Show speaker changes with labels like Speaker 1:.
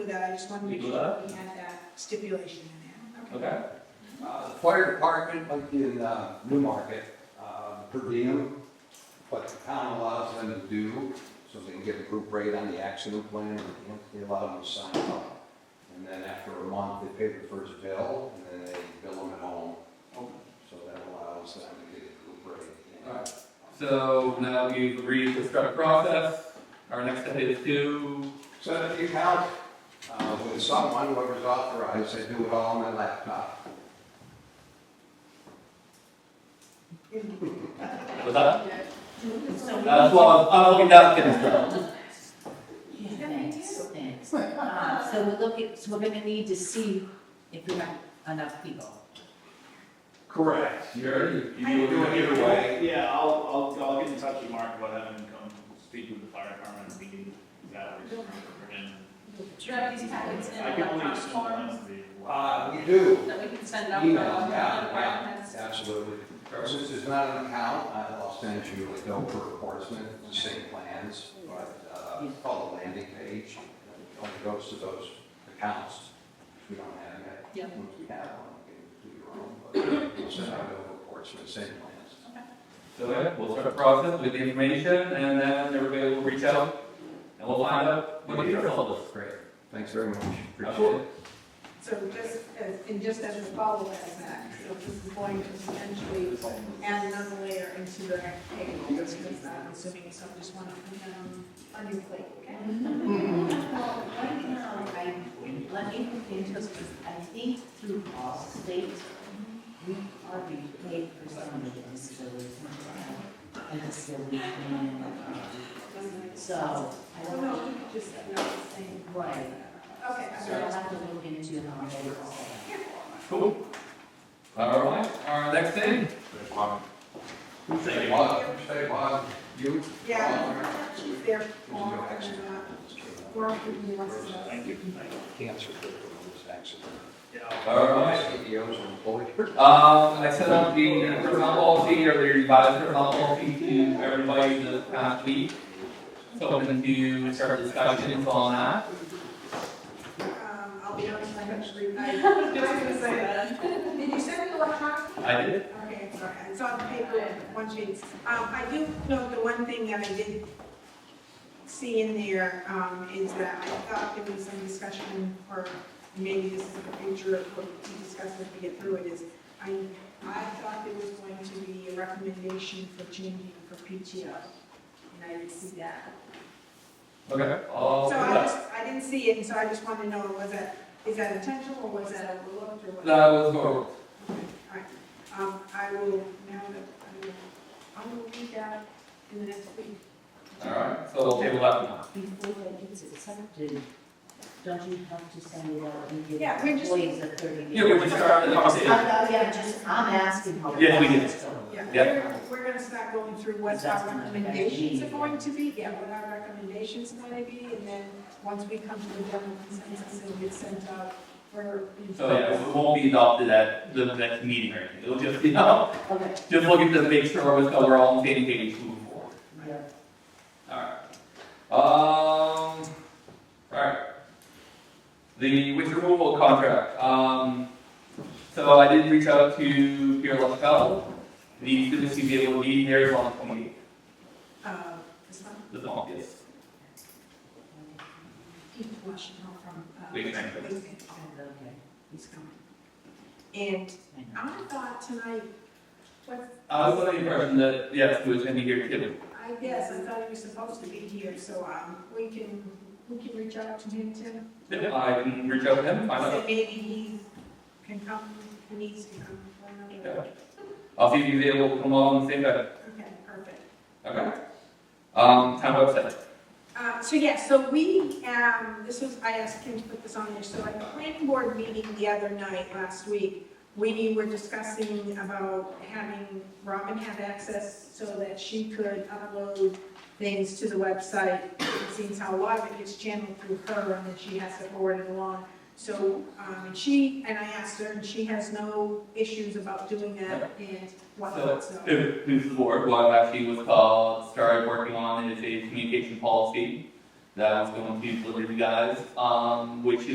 Speaker 1: do that, I just wanted to
Speaker 2: We
Speaker 1: make
Speaker 2: do
Speaker 1: sure that we had that stipulation in there.
Speaker 2: Okay,
Speaker 3: Uh, The fire department, like in uh, Newmarket, uh, per diem, what the town allows them to do, so they can get a group rate on the accident plan, and they allow them to sign up. And then after a month, they pay the first bill, and then they bill them at home,
Speaker 2: Okay.
Speaker 3: so that allows them to get a group rate. you know.
Speaker 2: Alright. so now that we've agreed to start the process, our next step is to,
Speaker 3: So if you count uh, with someone, whoever's authorized, they do it all on their laptop.
Speaker 2: what's that? Uh, Oh,
Speaker 4: So
Speaker 2: That's what I was- I was looking down at the
Speaker 4: we- Yeah, thanks, thanks. Um, So we're looking, so we're gonna need to see if we have enough people.
Speaker 3: Correct.
Speaker 2: You already, you
Speaker 1: I-
Speaker 2: do
Speaker 3: Do it either way.
Speaker 5: Yeah, I'll, I'll, I'll get in touch with Mark about having him come speak with the fire department, we can, that works for him.
Speaker 6: Do you have these packets in
Speaker 5: I can only
Speaker 6: electronic
Speaker 5: assume
Speaker 6: form
Speaker 5: that's the-
Speaker 3: Uh, We do.
Speaker 6: that we can send out?
Speaker 3: Email,
Speaker 6: uh,
Speaker 3: yeah,
Speaker 6: departments?
Speaker 3: Absolutely. Since it's not an account, I'll send you a bill for Portsmouth, the same plans, but, uh, call the landing page. It Only goes to those accounts, if we don't have yet.
Speaker 4: Yeah.
Speaker 3: Once we have one, we can do your own, but we'll send out over Portsmouth, same plans.
Speaker 2: So, yeah, we'll start the process with the information, and then everybody will reach out, and we'll find out what the interest level is. Great.
Speaker 3: Thanks very much. Appreciate
Speaker 2: Absolutely.
Speaker 3: it.
Speaker 1: So just, as- and just as a follow-up to that, so this is going to potentially add another layer into the table, because uh, I'm assuming some just want to, um, on your plate, okay?
Speaker 4: Well, right now, I, let me look into this, because I think through all states, we are being paid for some of the disabilities. And disability. plan. So, I
Speaker 1: So
Speaker 4: don't
Speaker 1: Oh, no,
Speaker 4: know,
Speaker 1: we could just, no, it's saying,
Speaker 4: right,
Speaker 1: okay, I'm
Speaker 4: so I'll
Speaker 1: sorry.
Speaker 4: have to look into how they all that.
Speaker 2: Cool. All right, our next thing,
Speaker 3: Stay bottom.
Speaker 5: Thank
Speaker 3: Stay
Speaker 5: you.
Speaker 3: bottom, stay bottom. You?
Speaker 1: Yeah, she's there
Speaker 3: There's no
Speaker 1: for,
Speaker 3: accident.
Speaker 1: uh, for who wants to know.
Speaker 5: Thank you. Thank you.
Speaker 3: Cancer, this accident.
Speaker 5: Yeah, I'll-
Speaker 2: All right.
Speaker 3: CEOs and employers.
Speaker 2: um, I set up the personnel policy, earlier revised personnel policy to everybody this past week. So open to start discussions on that.
Speaker 1: Um, I'll be honest, I haven't read, I was gonna say that. Did you send it electronically?
Speaker 2: I did.
Speaker 1: Okay, sorry, it's on paper, one sheet. Um, I do note the one thing that I did see in there, um, is that I thought there was some discussion, or maybe this is a future, of what we discuss as we get through it, is I, I thought there was going to be a recommendation for changing for PTO, and I didn't see that.
Speaker 2: Okay, I'll
Speaker 1: So
Speaker 2: put
Speaker 1: I
Speaker 2: that.
Speaker 1: just, I didn't see it, and so I just wanted to know, was that, is that intentional, or was that overlooked, or what?
Speaker 2: That was over.
Speaker 1: Okay, all right. Um, I will, now that, I will, I will read that in the next week.
Speaker 2: All right, so we'll table that for now.
Speaker 4: Before that gets accepted, don't you have to send it out and give
Speaker 1: Yeah, we're just-
Speaker 4: employees a thirty day?
Speaker 2: Yeah, we just started the conversation.
Speaker 4: I- I- Uh, Oh, yeah, just, I'm asking how.
Speaker 2: Yeah, we did.
Speaker 1: Yeah,
Speaker 2: Yeah.
Speaker 1: we're, we're gonna start going through what
Speaker 4: That's
Speaker 1: our
Speaker 4: gonna be-
Speaker 1: recommendations are going to be, yeah, what our recommendations are gonna be, and then, once we come to the general consensus, it'll get sent out for.
Speaker 2: So yeah, it won't be adopted at the next meeting or anything. It'll just, you know,
Speaker 4: Okay,
Speaker 2: just looking to make sure we're- that we're all on the same page moving forward.
Speaker 4: yeah.
Speaker 2: Alright. Um, alright. The winter removal contract, um, so I did reach out to Pierre LaFell. The students to be able to meet here on the twenty,
Speaker 1: Uh, this one,
Speaker 2: the month, yes.
Speaker 1: Pete Washington from. uh,
Speaker 2: Wait, thank you.
Speaker 1: Lincoln.
Speaker 4: Okay.
Speaker 1: He's coming. And
Speaker 4: I know.
Speaker 1: I thought tonight, what,
Speaker 2: I was under the impression that, yes, it was gonna be here too.
Speaker 1: I guess, I thought he was supposed to be here, so, um, we can, we can reach out to him too.
Speaker 2: I can reach out to him, find out.
Speaker 1: So maybe he can come, he needs to come for another.
Speaker 2: I'll see if he's able to come along the same day.
Speaker 1: Okay, perfect.
Speaker 2: Okay. Um, town website.
Speaker 1: Uh, So yeah, so we, um, this was, I asked him to put this on there, so at the planning board meeting the other night, last week, we were discussing about having Robin have access so that she could upload things to the website, seeing how a lot of it gets channeled through her, and then she has to forward it along. So, um, and she, and I asked her, and she has no issues about doing that and whatnot, so.
Speaker 2: Who's the board, what I've actually was called, started working on is a communication policy. That one's going to be delivered to you guys, um, which